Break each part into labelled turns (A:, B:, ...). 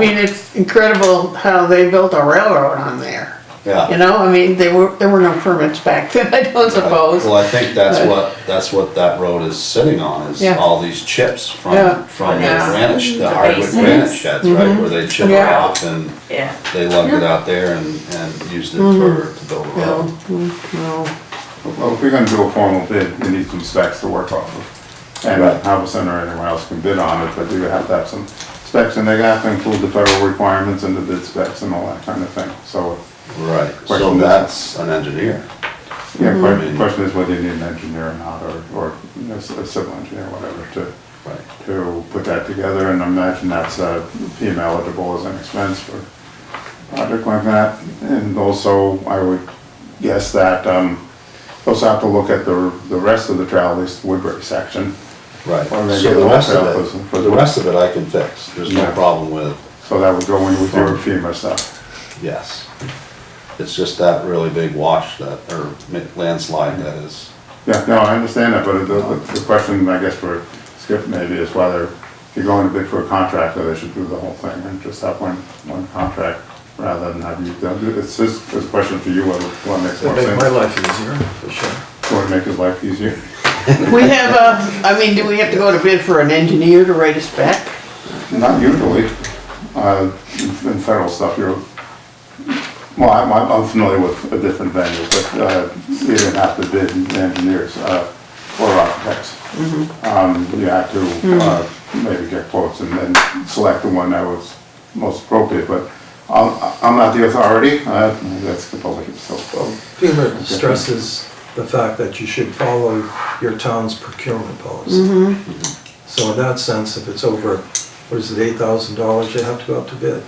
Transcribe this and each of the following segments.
A: I mean, it's incredible how they built a railroad on there. You
B: yeah.
A: know, I mean, there were, there were no permits back then, I don't suppose.
B: Well, I think that's
A: But-
B: what, that's what that road is sitting on, is
A: Yeah.
B: all these chips
A: Yeah. Mm-hmm.
B: from, from the
C: Yeah.
B: granite, sh- the
C: The
B: hardwood
C: basins.
B: granite sheds, right? Where they chip it
A: Yeah.
B: off and
C: Yeah.
B: they lugged it out there and, and used it
A: Mm-hmm.
B: for, to build a
A: No,
B: road.
A: mm, no.
D: Well, if we're gonna do a formal bid, we need some specs to work off of. And
B: Right.
D: Harbor Center or anyone else can bid on it, but we would have to have some specs, and they have to include the federal requirements and the bid specs and all that kind of thing, so.
B: Right, so
D: Question.
B: that's an engineer.
D: Yeah,
B: Mhm.
D: the question is whether you need an engineer or not, or, or a s- a civil engineer, whatever, to,
B: Right.
D: to put that together, and I imagine that's, uh, PM eligible as an expense for a project like that. And also, I would guess that, um, also have to look at the, the rest of the trail, at least Woodbury section.
B: Right,
D: Or maybe
B: so
D: a
B: the rest
D: hotel person
B: of
D: for
B: it,
D: the-
B: the rest of it I can fix, there's no
D: Yeah.
B: problem with,
D: So that would go in with your FEMA stuff.
B: yes. It's just that really big wash that, or mi- landslide that is,
D: Yeah, no, I understand that, but the, the- the question, I guess, for Skip maybe is whether if you're going to bid for a contractor, they should do the whole thing and just have one, one contract rather than have you, done- it's just, it's a question for you, what, what makes more
E: It'd make my
D: sense?
E: life easier, for sure.
D: Want to make his life easier?
A: We have a, I mean, do we have to go to bid for an engineer to write a spec?
D: Not usually, uh, in in federal stuff, you're, well, I'm, I'm- I'm familiar with a different venue, but, uh, you didn't have to bid engineers, uh, or architects. Um, you had to, uh, maybe get quotes and then select the one that was most appropriate, but I'm, I'm not the authority, uh, that's the public, so.
E: FEMA stresses the fact that you should follow your town's procurement policy. So in that sense, if it's over, what is it, eight thousand dollars, you have to go out to bid.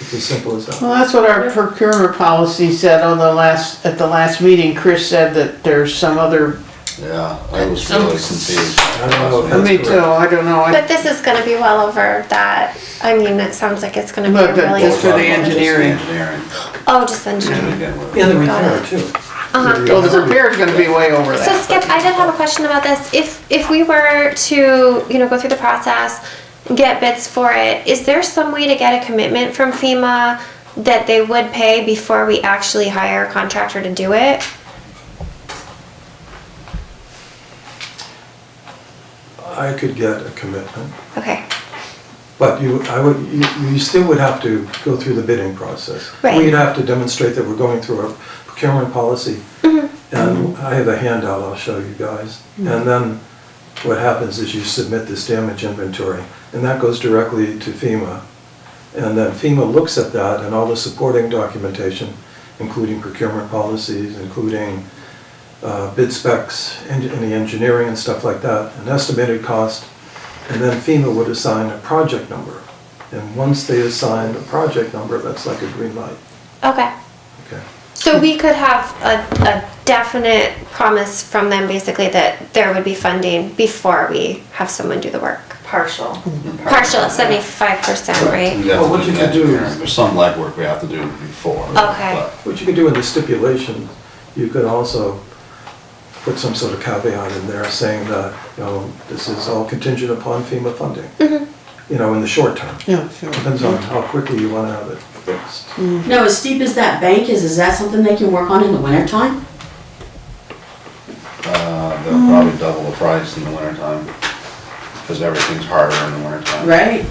E: It's as simple as that.
A: Well, that's what our procurement policy said on the last, at the last meeting, Chris said that there's some other,
B: yeah, I was really confused.
E: I don't know if that's
A: me
E: correct.
A: too, I don't know. I-
F: But this is gonna be well over that, I mean, it sounds like it's gonna be
A: But
F: a
A: the- just for
F: really,
A: the engineering.
B: Just the Engineering,
F: oh, just
B: to
F: engineering.
B: begin with.
E: And the repair too.
A: Well, the repair's gonna be way over
F: So
A: that.
F: Skip, I did have a question about this, if, if we were to, you know, go through the process, get bids for it, is there some way to get a commitment from FEMA that they would pay before we actually hire a contractor to do it?
E: I could get a commitment,
F: Okay,
E: but you, I would, you, you still would have to go through the bidding process.
F: Right.
E: We'd have to demonstrate that we're going through our procurement policy. And I have a handout I'll show you guys. And then what happens is you submit this damage inventory, and that goes directly to FEMA. And then FEMA looks at that and all the supporting documentation, including procurement policies, including uh, bid specs, en- any engineering and stuff like that, an estimated cost. And then FEMA would assign a project number. And once they assign a project number, that's like a green light,
F: okay.
E: okay?
F: So we could have a, a definite promise from them basically that there would be funding before we have someone do the work.
C: Partial.
F: Partial at seventy-five percent,
B: We
F: right?
B: have
E: Well,
B: to
E: what
B: do
E: you
B: the
E: could do
B: engineering.
E: is-
B: There's some legwork we have to do before. uh,
F: Okay.
E: What you could do in the stipulation, you could also put some sort of caveat in there saying that, you know, this is all contingent upon FEMA funding. You know, in the short term.
A: Yeah, sure.
E: Depends on how quickly you want to have it fixed.
G: Now, as steep as that bank is, is that something they can work on in the wintertime?
B: but, Uh, they'll probably double the price in the wintertime, because everything's harder in the wintertime.
G: Right.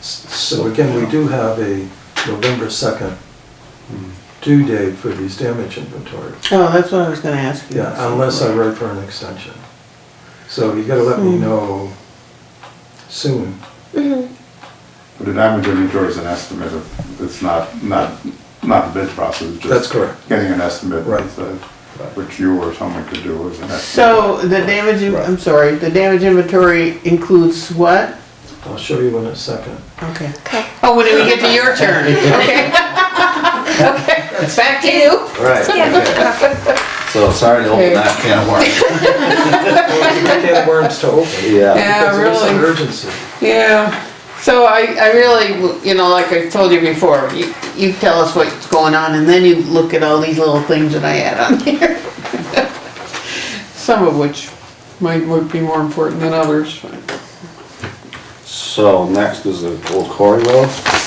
E: So again, we do have a November 2nd due date for these damage inventories.
A: Oh, that's what I was gonna ask you.
E: Yeah, um, unless I write for an extension. So you gotta let
A: Hmm.
E: me know soon.
D: But the damage inventory is an estimate of, it's not, not, not the bid process. it's just
E: That's correct.
D: Getting an estimate,
E: Right.
D: uh, which you or someone could do as an estimate.
A: So the damage, in- I'm sorry, the damage inventory includes what?
E: I'll show you in a second.
A: Okay.
F: Okay.
A: Oh, when do we get to your turn? Okay. Okay, back to you.
B: Right, okay. So sorry to open
A: Okay.
B: that can of worms.
E: Well, you can't worms to open.
A: Yeah,
B: Yeah,
E: Because it is an
A: really.
E: urgency.
A: Yeah, so I, I really, you know, like I told you before, you, you tell us what's going on and then you look at all these little things that I add on here. Some of which might, would be more important than others, but-
B: so next is the Old Quarry Road.